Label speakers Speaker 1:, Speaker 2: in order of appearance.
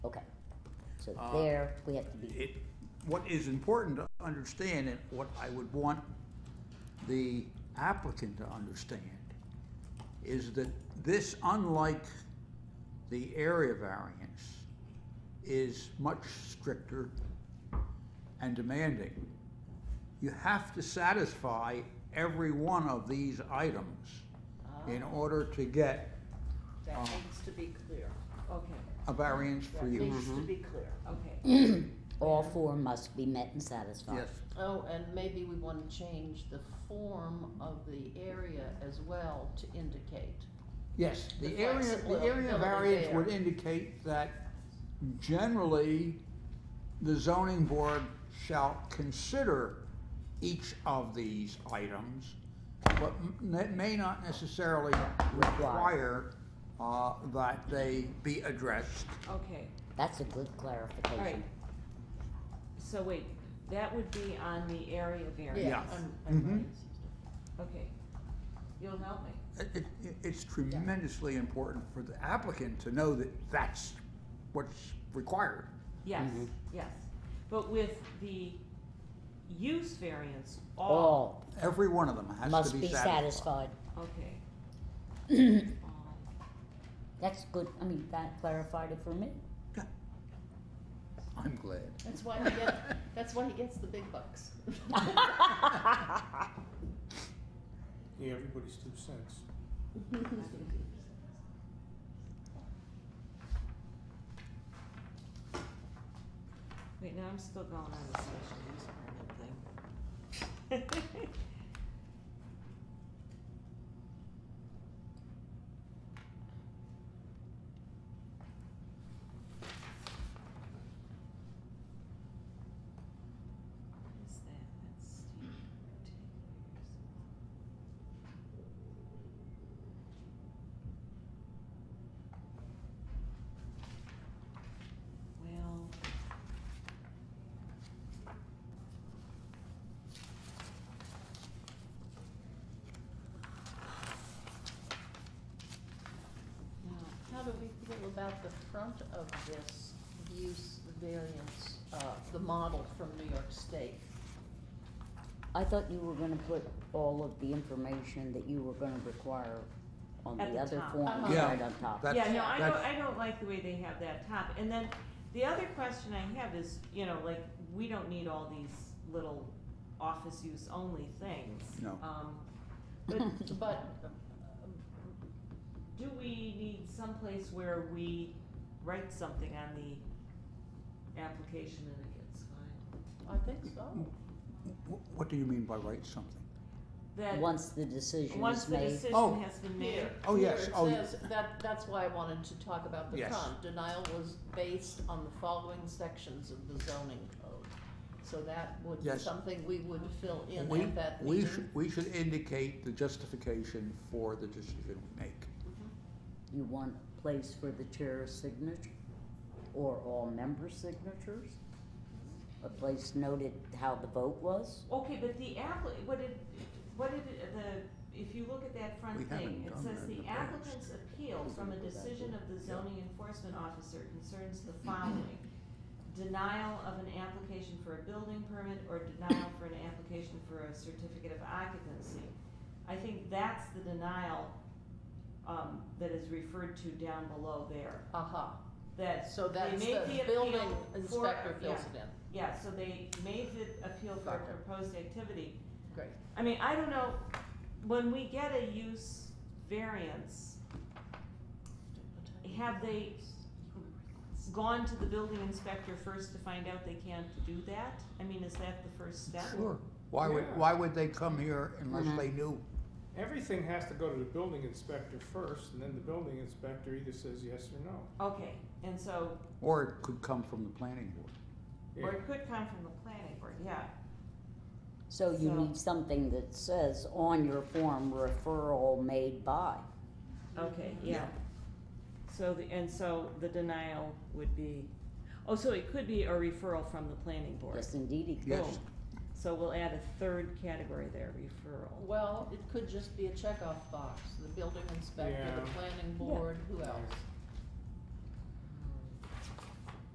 Speaker 1: So
Speaker 2: Uh,
Speaker 1: there, we have to be,
Speaker 2: It, what is important to understand and what I would want the applicant to understand is that this, unlike the area variance, is much stricter and demanding. You have to satisfy every one of these items in order to get
Speaker 3: That
Speaker 2: Uh,
Speaker 3: needs to be clear.
Speaker 4: Okay,
Speaker 2: a variance for
Speaker 3: That
Speaker 2: you.
Speaker 3: needs to be clear.
Speaker 4: okay.
Speaker 1: all four must be met and satisfied.
Speaker 2: Yes.
Speaker 3: Oh, and maybe we wanna change the form of the area as well to indicate.
Speaker 2: Yes, the
Speaker 3: The
Speaker 2: area, the
Speaker 3: flexibility
Speaker 2: area variance
Speaker 3: there.
Speaker 2: would indicate that generally, the zoning board shall consider each of these items, but m- that may not necessarily require, uh, that they be addressed.
Speaker 4: Okay,
Speaker 1: That's a good clarification.
Speaker 4: alright. So wait, that would be on the area variance,
Speaker 2: Yeah.
Speaker 3: I'm-
Speaker 2: Mhm.
Speaker 3: I'm right.
Speaker 4: okay. You'll help me.
Speaker 2: It, it, it's tremendously important for the applicant to know that that's what's required.
Speaker 4: Yes, yes. But with the use variance, all,
Speaker 1: All
Speaker 2: Every one of them has
Speaker 1: must
Speaker 2: to
Speaker 1: be
Speaker 2: be satisfied.
Speaker 1: satisfied.
Speaker 4: okay. All.
Speaker 1: That's good, I mean, that clarified it for me.
Speaker 2: I'm glad.
Speaker 3: That's why he gets, that's why he gets the big bucks.
Speaker 5: Yeah, everybody's two cents.
Speaker 4: Wait, now I'm still going on the special use permit thing. What is that? That's Steve Taylor's. Well. No.
Speaker 3: How do we feel about the front of this use variance, uh, the model from New York State?
Speaker 1: I thought you were gonna put all of the information that you were gonna require on
Speaker 4: At
Speaker 1: the
Speaker 4: the
Speaker 1: other
Speaker 4: top.
Speaker 1: form,
Speaker 3: Uh-huh.
Speaker 2: Yeah,
Speaker 1: right on top.
Speaker 2: That's-
Speaker 4: Yeah, no, I
Speaker 2: that's-
Speaker 4: don't, I don't like the way they have that top, and then, the other question I have is, you know, like, we don't need all these little office use only things.
Speaker 2: No.
Speaker 4: Um, but
Speaker 3: But,
Speaker 4: do we need someplace where we write something on the application and it gets filed?
Speaker 3: I think so.
Speaker 2: Wh- What do you mean by write something?
Speaker 4: That,
Speaker 1: Once the decision
Speaker 4: once
Speaker 1: is
Speaker 4: the
Speaker 1: made,
Speaker 2: Oh.
Speaker 4: decision has been made,
Speaker 3: Here-
Speaker 2: Oh,
Speaker 3: here
Speaker 2: yes.
Speaker 3: it
Speaker 2: Oh,
Speaker 3: says- that, that's why I wanted to talk about the
Speaker 2: Yes.
Speaker 3: front. Denial was based on the following sections of the zoning code. So that would be
Speaker 2: Yes.
Speaker 3: something we would fill in
Speaker 2: We-
Speaker 3: at that
Speaker 2: We
Speaker 3: meeting.
Speaker 2: should, we should indicate the justification for the decision we make.
Speaker 4: Mm-hmm.
Speaker 1: you want a place for the chair's signature or all member signatures? A place noted how the vote was?
Speaker 4: okay, but the appli- what did, what did it- the, if you look at that front
Speaker 2: We
Speaker 4: thing,
Speaker 2: haven't
Speaker 4: it
Speaker 2: done that
Speaker 4: says
Speaker 2: in
Speaker 4: the
Speaker 2: the past.
Speaker 4: applicant's appeal from a decision of the zoning enforcement officer concerns the following. Denial of an application for a building permit or denial for an application for a certificate of occupancy. I think that's the denial, um, that is referred to down below there,
Speaker 3: Aha,
Speaker 4: that
Speaker 3: Uh-huh. so
Speaker 4: they
Speaker 3: that's
Speaker 4: made
Speaker 3: the
Speaker 4: the appeal
Speaker 3: building
Speaker 4: for-
Speaker 3: inspector
Speaker 4: yeah.
Speaker 3: fills it in.
Speaker 4: Yeah, so they made the appeal for a
Speaker 3: Got it.
Speaker 4: proposed activity.
Speaker 3: Great.
Speaker 4: I mean, I don't know, when we get a use variance, have they gone to the building inspector first to find out they can't do that? I mean, is that the first step?
Speaker 2: Why would,
Speaker 5: Yeah.
Speaker 2: why would they come here unless
Speaker 1: Mhm.
Speaker 2: they knew?
Speaker 5: Everything has to go to the building inspector first, and then the building inspector either says yes or no.
Speaker 4: Okay, and so,
Speaker 2: Or it could come from the planning board.
Speaker 5: Yeah.
Speaker 4: or it could come from the planning board, yeah.
Speaker 1: So you
Speaker 4: So-
Speaker 1: need something that says on your form referral made by.
Speaker 4: Okay, yeah. So, the and so the denial would be, oh, so it could be a referral from the planning board.
Speaker 1: Yes, indeed, it
Speaker 2: Yes.
Speaker 1: could.
Speaker 4: So we'll add a third category there, referral.
Speaker 3: Well, it could just be a checkoff box, the building inspector, the
Speaker 5: Yeah.
Speaker 3: planning board, who else?